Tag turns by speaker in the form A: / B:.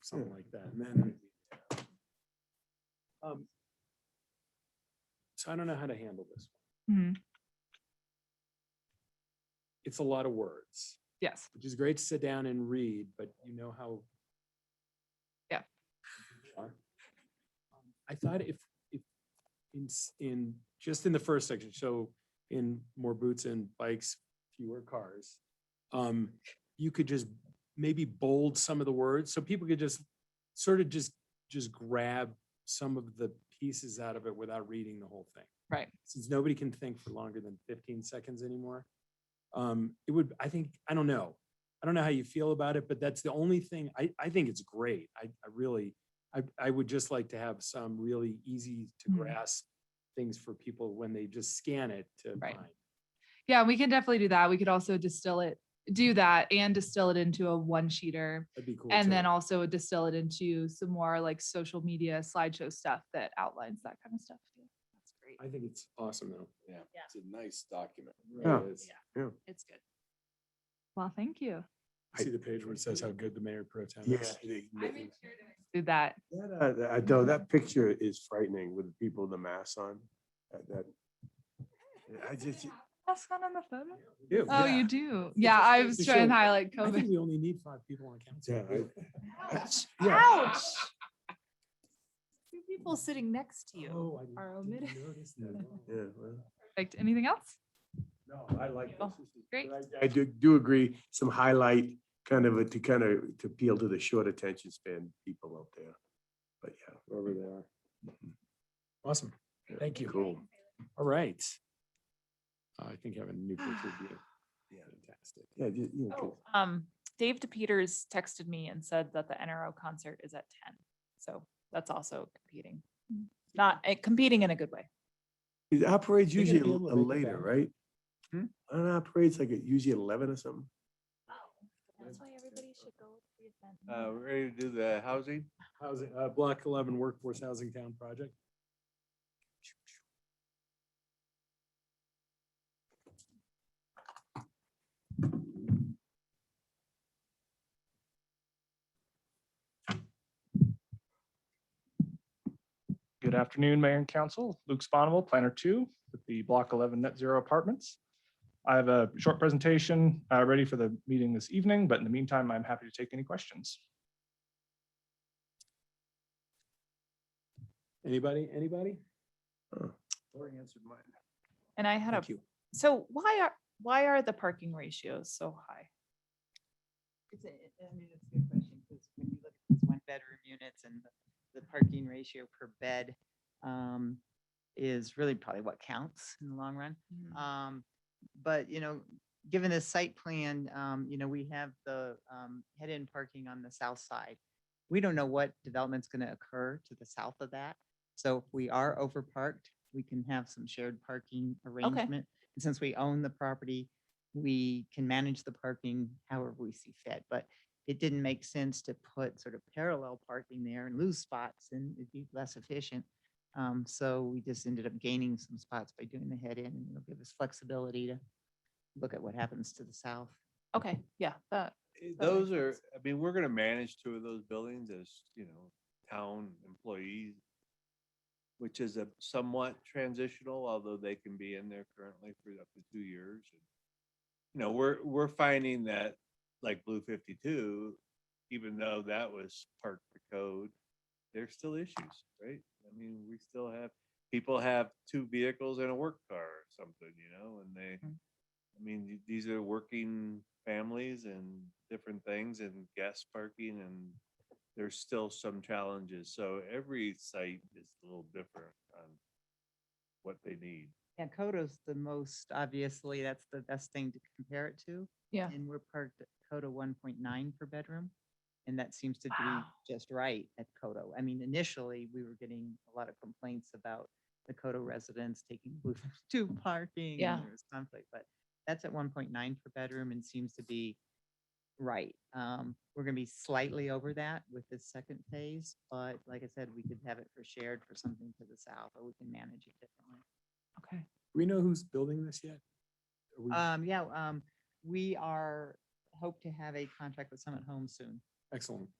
A: something like that. and then- Um, So I don't know how to handle this.
B: Mhm.
A: It's a lot of words,
B: Yes,
A: which is great to sit down and read, but you know how.
B: Yeah.
A: are. I thought if, if, in, s- in, just in the first section, so in more boots and bikes, fewer cars. Um, you could just maybe bold some of the words, so people could just sort of just, just grab some of the pieces out of it without reading the whole thing.
B: Right.
A: Since nobody can think for longer than fifteen seconds anymore. Um, it would, I think, I don't know. I don't know how you feel about it, but that's the only thing, I, I think it's great. I, I really, I, I would just like to have some really easy to
B: Mhm.
A: grasp things for people when they just scan it to
B: Right.
A: find.
B: yeah, we can definitely do that. We could also distill it, do that and distill it into a one sheeter.
A: That'd be cool.
B: And then
A: too.
B: also distill it into some more like social media slideshow stuff that outlines that kind of stuff. too. That's great.
A: I think it's awesome though.
C: Yeah,
D: Yeah.
C: it's a nice document.
A: Yeah. Yeah.
D: It's good.
B: Well, thank you.
A: See the page where it says how good the mayor pro tem
E: Yeah.
A: is.
B: Do that.
E: That, uh, I know that picture is frightening with the people with the masks on. That- That, I just,
B: That's not on the photo.
A: Ew.
B: Oh,
A: Yeah.
B: you do.
A: It's
B: Yeah,
A: just
B: I
A: goes
B: was
A: to
B: trying to
A: show-
B: highlight
A: I think
B: COVID.
A: we only need five people on council.
E: yeah,
D: Ouch.
E: yeah.
D: Two people sitting next to you.
A: Oh, I didn't-
D: are
A: didn't
D: omitted.
A: notice
E: Yeah,
A: that. Wow.
E: yeah, well.
B: Perfect. Anything else?
E: No, I like.
B: Oh,
E: this.
B: great.
E: But I- I do, do agree, some highlight, kind of, a- to kind of, to appeal to the short attention span people out there. But yeah.
A: Wherever they are. Awesome.
E: Yeah,
A: Thank you.
E: Cool.
A: All right. Uh, I think I have a new picture of you.
E: Yeah.
A: Fantastic.
E: Yeah, you, you know,
D: Um, Dave DePeters texted me and said that the NRO concert is at ten. So that's also competing. Not, eh, competing in a good way.
E: it operates
A: You're gonna
E: usually
A: be able to
E: a- a
A: make it
E: later,
A: back.
E: right?
A: Hmm?
E: It operates like at usually eleven or something.
D: Oh, That's why everybody should go to the
A: Oh,
C: Uh, we're ready to do the housing?
A: Housing, uh, block eleven workforce housing town project.
F: Good afternoon, Mayor and Council. Luke Sponable, Planner Two with the Block 11 Net Zero Apartments. I have a short presentation uh, ready for the meeting this evening, but in the meantime, I'm happy to take any questions.
A: Anybody, anybody?
E: Lori answered mine.
D: And I had a,
A: Thank you.
D: so why are, why are the parking ratios so high?
G: It's a, it- I mean, it's a good question, because when you look at these one-bedroom units and the- the parking ratio per bed um, is really probably what counts in the long run.
D: Mm. Hmm.
G: Um, but, you know, given the site plan, um, you know, we have the, um, head-in parking on the south side. We don't know what development's gonna occur to the south of that. So if we are overparked, we can have some shared parking arrangement. And since we own the property, we can manage the parking however we see fit. But it didn't make sense to put sort of parallel parking there and lose spots and it'd be less efficient. Um, so we just ended up gaining some spots by doing the head in and it'll give us flexibility to look at what happens to the south.
D: Okay, yeah, that,
C: Eh,
D: That makes
C: Those are, I mean, we're gonna manage two of those buildings as, you know, town employees, which is a somewhat transitional, although they can be in there currently for up to two years. You know, we're, we're finding that, like Blue Fifty-two, even though that was part of the code, there's still issues, right? I mean, we still have, people have two vehicles and a work car or something, you know, and they,
G: Mhm.
C: I mean, th- these are working families and different things and gas parking and there's still some challenges. So every site is a little different on what they need.
G: Yeah, Coda's the most, obviously, that's the best thing to compare it to.
D: Yeah.
G: And we're parked at Coda one point nine per bedroom. And that seems to
D: Wow.
G: be just right at Coda. I mean, initially, we were getting a lot of complaints about the Coda residents taking Blue two parking. and
D: Yeah.
G: There was conflict, but that's at one point nine per bedroom and seems to be right. Um, we're gonna be slightly over that with this second phase, but like I said, we could have it for shared for something to the south, or we can manage it differently.
D: okay.
A: Do we know who's building this yet? Are we-
D: Uh,
G: Um, yeah, um, we are, hope to have a contract with Summit Home soon.
A: Excellent.